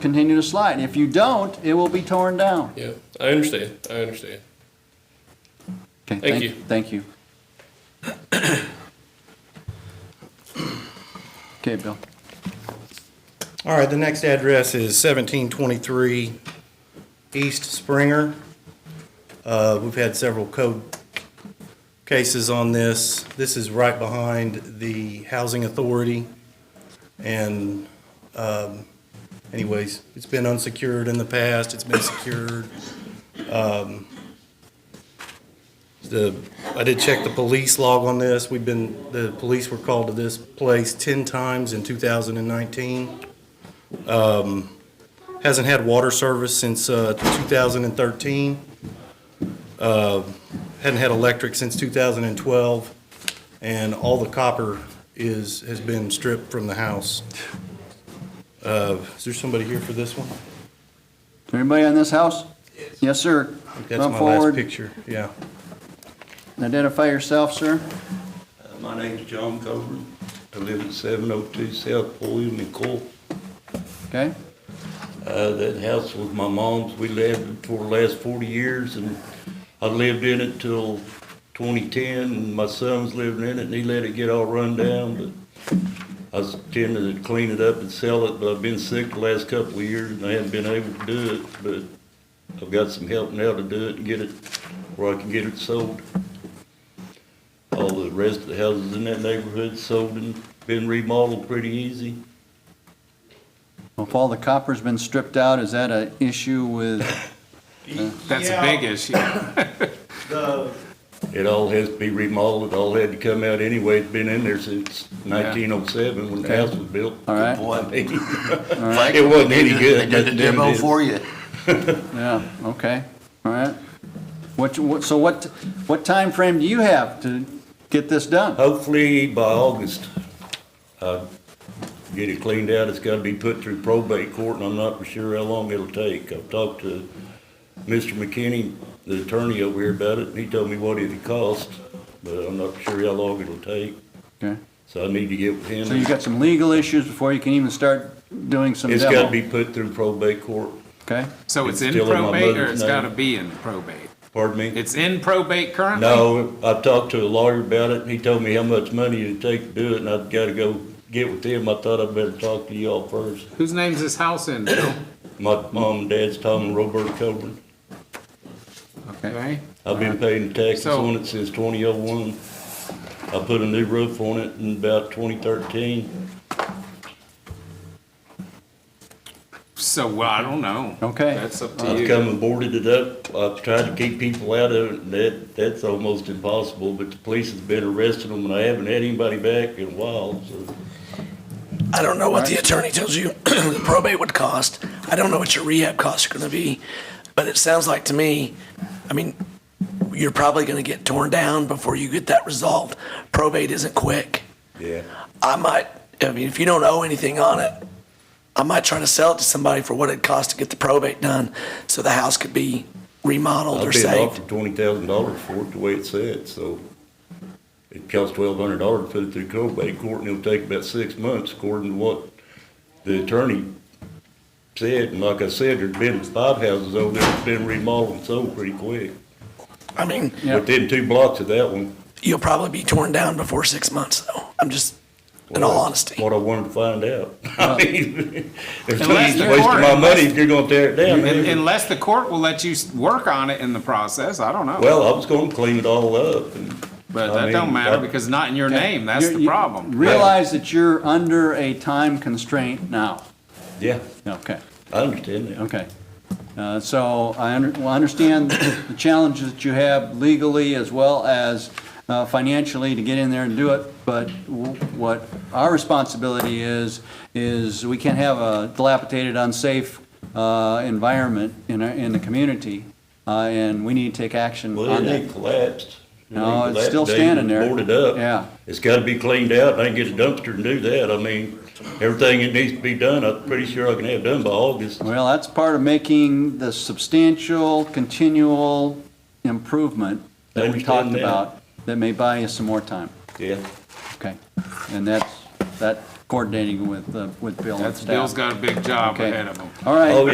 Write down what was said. continue to slide. If you don't, it will be torn down. Yeah, I understand, I understand. Okay, Thank you. Thank you. Okay, Bill. All right, the next address is 1723 East Springer. Uh, We've had several code cases on this. This is right behind the Housing Authority. And um, anyways, it's been unsecured in the past, it's been secured. Um, The, I did check the police log on this. We've been, the police were called to this place 10 times in 2019 hasn't had water service since uh, 2013. Uh, Hadn't had electric since 2012, and all the copper is, has been stripped from the house. Uh, Is there somebody here for this one? Everybody in this house? Yes. sir. That's Come my last forward, picture, yeah. identify yourself, sir. Uh, My name's John Coburn. I live at 702 South William and Cole. Okay, Uh, That house was my mom's. We lived it for the last 40 years, and I lived in it till 2010, and my son's living in it, and he let it get all run down, but I was intending to clean it up and sell it, but I've been sick the last couple of years, and I haven't been able to do it, but I've got some help now to do it and get it where I can get it sold. All the rest of the houses in that neighborhood sold and been remodeled pretty easy. well, if all the copper's been stripped out, is that an issue with, That's a Yeah. big issue. It all has to be remodeled, it all had to come out anyway, it's been in there since nineteen oh seven when the Okay. house was built. All right. Boy, I mean, right. It wasn't any They did good. the but then demo it- for you. yeah, okay, all right. What, you- what, so what, what time frame do you have to get this done? Hopefully by August, I'll get it cleaned out, it's gotta be put through probate court and I'm not for sure how long it'll take. I've talked to Mr. McKinney, the attorney over here about it, and he told me what it'd cost, but I'm not for sure how long it'll take, Okay, so I need to get with him. so you've got some legal issues before you can even start doing some It's demo? gotta be put through probate court, Okay, So it's It's in still in my probate or mother's it's name. gotta be in probate? pardon me? It's in probate currently? No, I talked to a lawyer about it, and he told me how much money it'd take to do it, and I've gotta go get with him, I thought I'd better talk to y'all first. Whose name's this house in, Bill? My mom and dad's Tom and Robert Coburn, okay, Okay, I've been paying taxes So- on it since twenty oh one. I put a new roof on it in about twenty thirteen, so, well, I don't know. Okay. That's up to I've you. come and boarded it up, I've tried to keep people out of it, and that, that's almost impossible, but the police has been arresting them, and I haven't had anybody back in a while, so. I don't know what the attorney tells you the probate would cost. I don't know what your rehab costs are gonna be, but it sounds like to me, I mean, you're probably gonna get torn down before you get that resolved. Probate isn't quick. Yeah. I might, I mean, if you don't owe anything on it, I might try to sell it to somebody for what it costs to get the probate done, so the house could be remodeled or I've been saved. offered twenty thousand dollars for it, the way it said, so. It costs twelve hundred dollars to put it through probate court, and it'll take about six months, according to what the attorney said. And like I said, there's been five houses over there that's been remodeled and sold pretty quick. I mean, Yeah. Within two blocks of that one. you'll probably be torn down before six months, though. I'm just, in Well, all that's honesty. What I wanted to find out. I mean, there's no Unless use you're wasting my foreign, money if you're gonna tear it down. Un- Unless the court will let you s- work on it in the process, I don't know. Well, I was gonna clean it all up and. But I that mean, don't matter I- because not in your name, that's You- the you problem. Realize that you're under a time constraint now. Yeah, Okay, I understand that. okay. Uh, So I under- well, I understand the challenges that you have legally as well as uh, financially to get in there and do it, but w- what our responsibility is, is we can't have a dilapidated, unsafe uh, environment in, our- in the community, uh, and we need to take action Well, on it ain't that. collapsed. It No, ain't it's still collapsed. They standing there. Boarded up. Yeah. It's gotta be cleaned out. I can get a dumpster and do that. I mean, everything that needs to be done, I'm pretty sure I can have done by August. Well, that's part of making the substantial, continual improvement I that we talked understand that. about, that may buy you some more time, Yeah. okay? And that's, that coordinating with, uh, with Bill and That's, staff. Bill's got a big job Okay. ahead of him. All right. Oh,